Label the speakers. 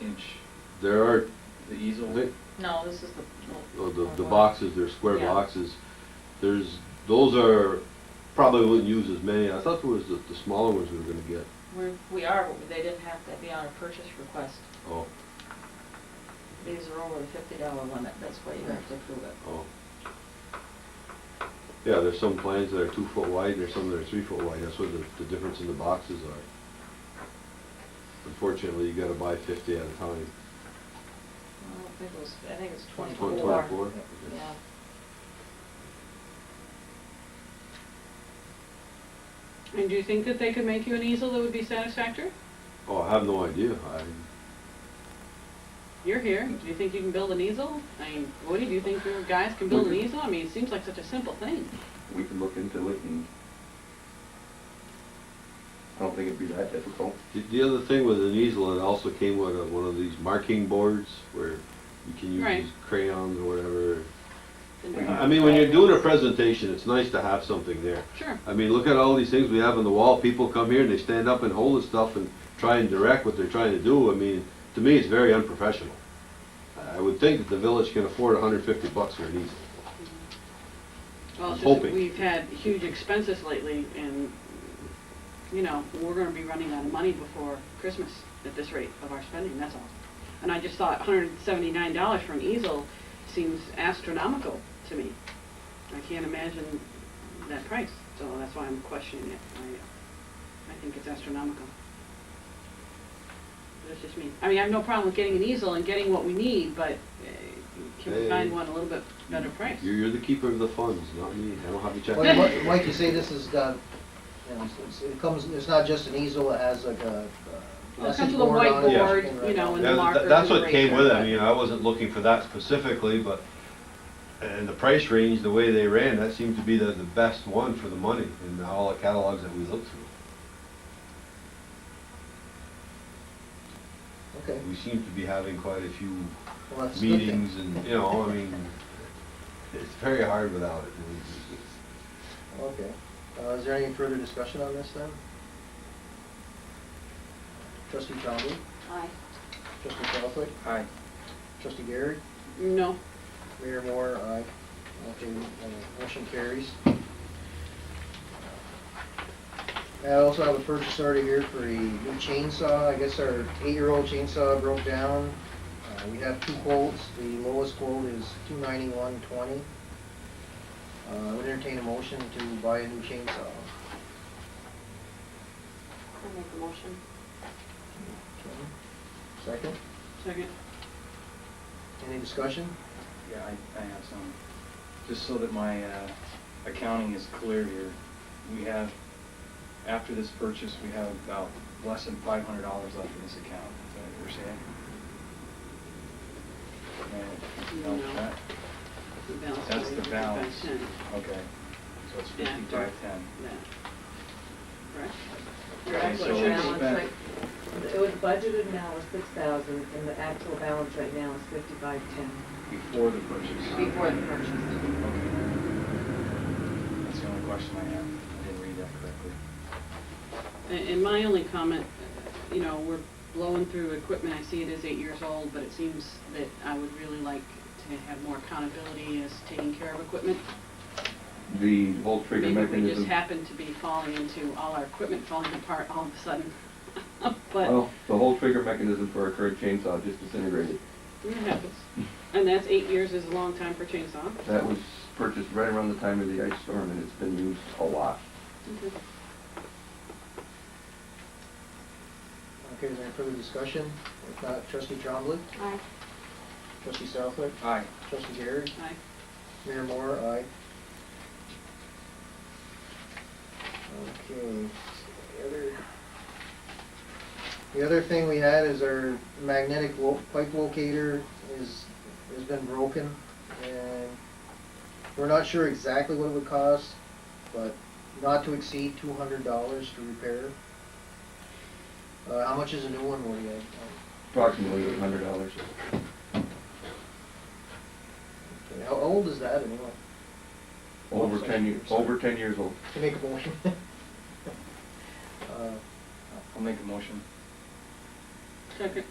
Speaker 1: inch
Speaker 2: There are,
Speaker 1: the
Speaker 2: I
Speaker 1: easel.
Speaker 2: think,
Speaker 3: No, this is the.
Speaker 2: oh, the, the boxes, they're square
Speaker 3: Yeah.
Speaker 2: boxes. There's, those are, probably wouldn't use as many. I thought there was the, the smaller ones we were gonna get.
Speaker 3: We're, we are, but they didn't have to be on a purchase request.
Speaker 2: Oh,
Speaker 3: These are over the fifty dollar limit, that's why you have to approve it.
Speaker 2: oh. Yeah, there's some plans that are two foot wide, and there's some that are three foot wide. That's what the, the difference in the boxes are. Unfortunately, you gotta buy fifty at a time.
Speaker 3: I don't think it was, I think it's
Speaker 2: Twen-
Speaker 3: twenty-four.
Speaker 2: Twenty-four?
Speaker 3: Yeah.
Speaker 4: And do you think that they could make you an easel that would be satisfactory?
Speaker 2: Oh, I have no idea. I,
Speaker 4: You're here, do you think you can build an easel? I mean, Woody, do you think your guys can build an easel? I mean, it seems like such a simple thing.
Speaker 5: we can look into it and I don't think it'd be that difficult.
Speaker 2: The, the other thing with an easel, it also came with a, one of these marking boards where you can use
Speaker 4: Right.
Speaker 2: these crayons or whatever.
Speaker 4: And-
Speaker 2: I mean, when you're doing a presentation, it's nice to have something there.
Speaker 4: Sure,
Speaker 2: I mean, look at all these things we have on the wall. People come here and they stand up and hold the stuff and try and direct what they're trying to do. I mean, to me, it's very unprofessional. I- I would think that the village can afford 150 bucks for an easel.
Speaker 4: well, it's
Speaker 2: I'm
Speaker 4: just that
Speaker 2: hoping.
Speaker 4: we've had huge expenses lately and, you know, we're gonna be running out of money before Christmas at this rate of our spending, that's all. And I just thought hundred and seventy-nine dollars for an easel seems astronomical to me. I can't imagine that price, so that's why I'm questioning it. I, I think it's astronomical. That's just me. I mean, I have no problem with getting an easel and getting what we need, but uh, can we
Speaker 2: Hey.
Speaker 4: find one a little bit better price?
Speaker 2: You're, you're the keeper of the funds, not me. I don't have to check.
Speaker 6: Like- Like like you say, this has got, you know, it's- it comes, it's not just an easel, it has like a uh,
Speaker 4: Well, it comes
Speaker 6: message
Speaker 4: with a
Speaker 6: board on it.
Speaker 2: whiteboard,
Speaker 6: and
Speaker 4: you
Speaker 6: right
Speaker 4: know,
Speaker 6: on.
Speaker 4: and-
Speaker 2: Yeah,
Speaker 4: the
Speaker 2: tha-
Speaker 4: markers
Speaker 2: That's
Speaker 4: and
Speaker 2: what
Speaker 4: the
Speaker 2: came with it, I
Speaker 4: eraser.
Speaker 2: mean, I wasn't looking for that specifically, but, and the price range, the way they ran, that seemed to be the, the best one for the money in all the catalogs that we looked through.
Speaker 6: Okay,
Speaker 2: We seem to be having quite a few
Speaker 6: well, that's a good thing.
Speaker 2: meetings and, you know, I mean, it's very hard without it. It's- it's-
Speaker 6: Okay. Uh, Is there any further discussion on this then? Trustee Trombley,
Speaker 3: Aye.
Speaker 6: trustee Southwick,
Speaker 5: Aye.
Speaker 6: trustee Garrett,
Speaker 4: No,
Speaker 6: Mayor Moore, aye. Okay, uh, motion carries. I also have a purchase order here for a new chainsaw. I guess our eight-year-old chainsaw broke down. Uh, We have two quotes. The lowest quote is two ninety-one twenty. Uh, I would entertain a motion to buy a new chainsaw.
Speaker 3: I make a motion.
Speaker 6: Okay. Second,
Speaker 4: second.
Speaker 6: any discussion?
Speaker 5: Yeah, I, I have some. Just so that my uh, accounting is clear here, we have, after this purchase, we have about less than five hundred dollars left in this account. Is that what you're saying? No,
Speaker 4: No.
Speaker 5: that-
Speaker 4: The balance
Speaker 5: That's the
Speaker 4: is
Speaker 5: balance.
Speaker 4: 55 cents.
Speaker 5: Okay, so it's
Speaker 4: Yeah,
Speaker 5: fifty-five ten.
Speaker 4: Yeah. Correct?
Speaker 3: Your
Speaker 5: Okay,
Speaker 3: actual
Speaker 5: so we
Speaker 3: balance
Speaker 5: spent-
Speaker 3: right-
Speaker 7: It was budgeted now was six thousand, and the actual balance right now is fifty-five ten.
Speaker 5: Before the purchase.
Speaker 3: Before the purchase.
Speaker 5: Okay. That's the only question I have. I didn't read that correctly.
Speaker 4: And and my only comment, uh, you know, we're blowing through equipment, I see it is eight years old, but it seems that I would really like to have more accountability as taking care of equipment.
Speaker 8: The whole trigger
Speaker 4: Maybe we just
Speaker 8: mechanism,
Speaker 4: happen to be falling into all our equipment falling apart all of a sudden. But,
Speaker 8: well, the whole trigger mechanism for our current chainsaw just disintegrated.
Speaker 4: it happens. And that's eight years is a long time for chainsaw.
Speaker 8: That was purchased right around the time of the ice storm and it's been used a lot.
Speaker 6: Okay, is there any further discussion? If not, trustee Trombley,
Speaker 3: Aye.
Speaker 6: trustee Southwick,
Speaker 5: Aye.
Speaker 6: trustee Garrett,
Speaker 4: Aye.
Speaker 6: Mayor Moore, aye. Okay, the other, the other thing we had is our magnetic lo- pipe locator is, has been broken, and we're not sure exactly what it would cost, but not to exceed two hundred dollars to repair. Uh, how much is a new one, Woody? I- I-
Speaker 8: Approximately eight hundred dollars.
Speaker 6: okay, How old is that anyway?
Speaker 8: Over ten years, over ten years old.
Speaker 6: Can you make a motion? Uh,
Speaker 5: I'll make a motion.
Speaker 4: Second.